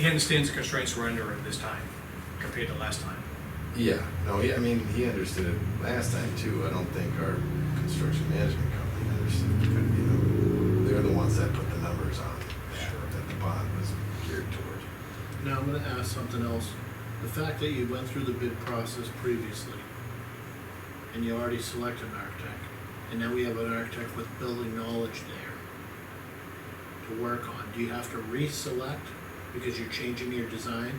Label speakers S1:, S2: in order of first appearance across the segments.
S1: He understands the constraints we're under at this time compared to last time.
S2: Yeah, no, he, I mean, he understood it last time too. I don't think our construction management company understood. But, you know, they're the ones that put the numbers on that,
S1: Sure.
S2: that the bond was geared toward.
S3: Now, I'm gonna ask something else. The fact that you went through the bid process previously, and you already selected an architect, and now we have an architect with building knowledge there to work on, do you have to re-select because you're changing your design?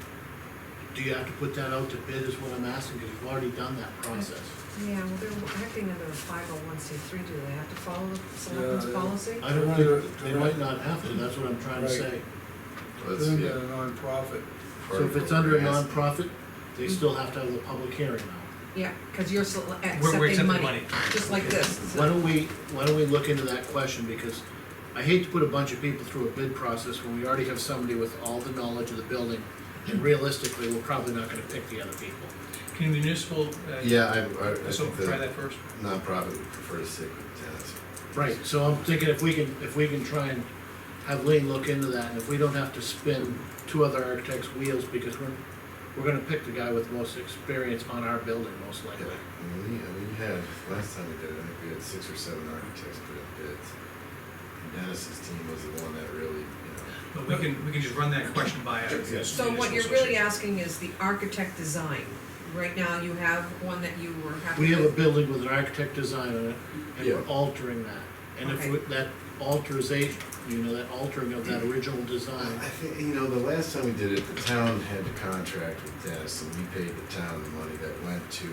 S3: Do you have to put that out to bid is what I'm asking, because you've already done that process.
S4: Yeah, well, they're acting under a five oh one C three, do they have to follow the selectmen's
S5: Yeah, they-
S4: policy?
S3: Uh, I don't know, they might not have to, that's what I'm trying to
S5: Right.
S3: say.
S2: Well, it's-
S5: Then
S2: yeah,
S5: they're a nonprofit.
S2: part
S3: So if
S2: of
S3: it's
S2: what
S3: under a
S2: we're asking.
S3: nonprofit, they still have to have the public hearing now.
S4: Yeah, cause you're sele-
S1: We're, we're
S4: accepting
S1: accepting
S4: money,
S1: money.
S4: just like this.
S3: Why don't we, why don't we look into that question, because I hate to put a bunch of people through a bid process when we already have somebody with all the knowledge of the building, and realistically, we're probably not gonna pick the other people.
S1: Can municipal, uh,
S2: Yeah, I, I, I
S1: So
S2: think
S1: try
S2: the
S1: that first.
S2: nonprofit would prefer to stick with tenants.
S3: Right, so I'm thinking if we can, if we can try and have Lean look into that, and if we don't have to spin two other architects' wheels, because we're, we're gonna pick the guy with most experience on our building, most
S2: Yeah,
S3: likely.
S2: and we, and we had, last time we did it, I think we had six or seven architects put in bids. And Dennis's team was the one that really, you know,
S1: But we can, we can just run that question by. our
S2: Yeah.
S4: So what
S1: municipal
S4: you're really
S1: association.
S4: asking is the architect design. Right now, you have one that you were happy with.
S3: We have a building with an architect design on it, and we're
S2: Yeah.
S3: altering that. And if
S4: Okay.
S3: we- that alterization, you know, that altering of that original design,
S2: I think, you know, the last time we did it, the town had the contract with Dennis, and we paid the town the money that went to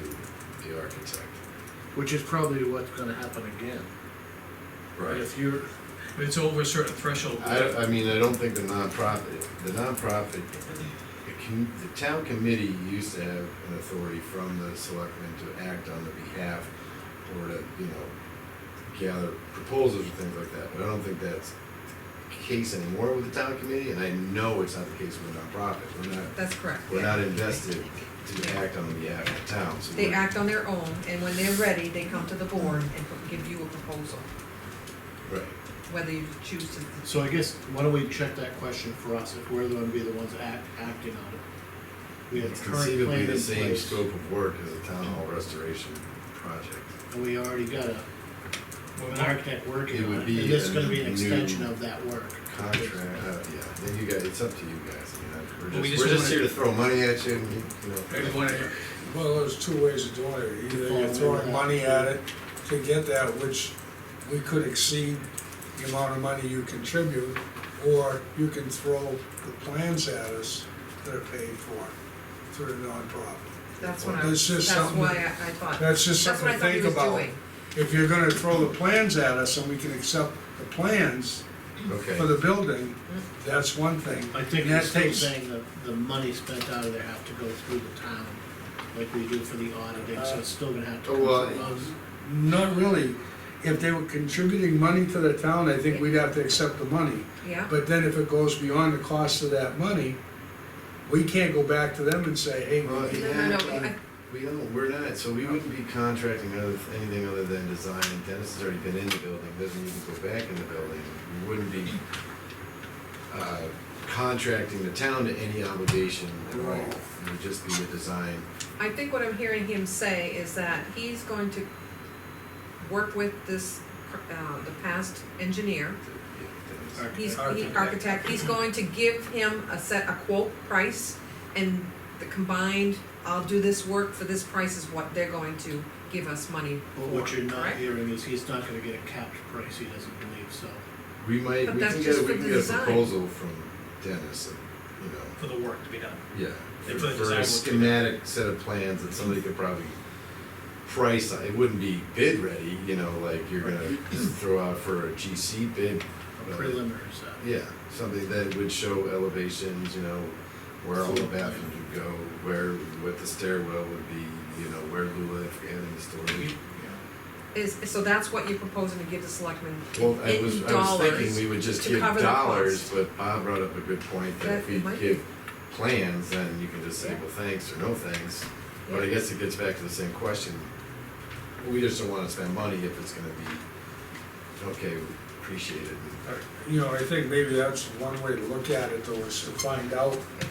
S2: the architect.
S3: which is probably what's gonna happen again. If you're,
S1: But It's over a certain threshold.
S2: I, I mean, I don't think the nonprofit, the nonprofit, the com- the town committee used to have an authority from the selectmen to act on the behalf or to, you know, gather proposals or things like that, but I don't think that's the case anymore with the town committee, and I know it's not the case with nonprofit, we're not,
S4: That's correct.
S2: we're
S4: yeah.
S2: not invested to act on the behalf of the town, so.
S4: They
S2: we're-
S4: act on their own, and when they're ready, they come to the board and give you a proposal,
S2: Right,
S4: whether you choose to.
S3: so I guess, why don't we check that question for us, if we're gonna be the ones act, acting on it? We have
S2: it's
S3: the current
S2: conceivably
S3: plan in
S2: the same
S3: place,
S2: scope of work as a town hall restoration project.
S3: and we already got a,
S1: Well,
S3: an
S1: our-
S3: architect working
S2: It
S3: on
S2: would
S3: it, and
S2: be
S3: this is
S2: a
S3: gonna be an
S2: new
S3: extension of that work.
S2: Contract, uh, yeah, then you guys, it's up to you guys, I mean,
S1: Well, we
S2: I- we're
S1: just
S2: just, we're just
S1: wanna-
S2: here to throw money at you, and, you know.
S1: I just wanna-
S5: Well, there's two ways of doing it. Either you're throwing money at it to get that, which we could exceed the amount of money you contribute, or you can throw the plans at us that are paid for through the nonprofit.
S4: That's what I,
S5: That's just
S4: that's
S5: something-
S4: why I, I thought,
S5: That's just
S4: that's what
S5: something
S4: I
S5: to
S4: thought he
S5: think
S4: was
S5: about.
S4: doing.
S5: If you're gonna throw the plans at us and we can accept the plans for
S2: Okay,
S5: the building,
S4: Mm-hmm.
S5: that's one thing.
S3: I think
S5: And that
S3: he's still
S5: takes-
S3: saying that the money spent out of there have to go through the town, like we do for the auditing, so it's still gonna have to
S2: Uh,
S3: come
S2: well,
S3: from us.
S5: Not really. If they were contributing money to the town, I think we'd have to accept the money.
S4: Yeah,
S5: But then if it goes beyond the cost of that money, we can't go back to them and say, hey, we
S2: Well,
S5: need
S4: no, no, no,
S5: that
S4: we- I-
S5: money."
S2: we don't, we're not, so we wouldn't be contracting other, anything other than design, and Dennis has already been in the building, doesn't even go back in the building, we wouldn't be, uh, contracting the town to any obligation at all,
S5: Right.
S2: it would just be a design,
S4: I think what I'm hearing him say is that he's going to work with this, uh, the past engineer,
S2: yeah, Dennis.
S3: Alright.
S4: He's, he,
S5: Architect.
S4: architect, he's going to give him a set, a quote price, and the combined, I'll do this work for this price is what they're going to give us money for,
S3: But what you're not
S4: correct?
S3: hearing is he's not gonna get a capped price, he doesn't believe, so.
S2: We might,
S4: But
S2: we
S4: that's
S2: can
S4: just
S2: get, we
S4: for
S2: can
S4: the
S2: get a
S4: design.
S2: proposal from Dennis, you know,
S1: For the work to be done.
S2: Yeah,
S1: They
S2: for,
S1: put a
S2: for
S1: design
S2: a
S1: work
S2: schematic set of plans that somebody could probably price, on. it wouldn't be bid ready, you know, like you're gonna just throw out for a GC bid.
S3: A
S2: but,
S3: preliminary set.
S2: Yeah, something that would show elevations, you know, where all the bathrooms would go, where, what the stairwell would be, you know, where Lula, if any storage.
S4: Is, so that's what you're proposing to give the selectmen
S2: Well, I
S4: in
S2: was, I was thinking
S4: dollars,
S2: we would just
S4: to
S2: give
S4: cover the
S2: dollars, but Bob brought up a good point that
S4: That
S2: if we
S4: might be-
S2: give plans, then you can just say,
S4: Yeah.
S2: well, thanks or no thanks. But I
S4: Yeah.
S2: guess it gets back to the same question. We just don't wanna spend money if it's gonna be, okay, appreciated.
S5: You know, I think maybe that's one way to look at it though, is to find out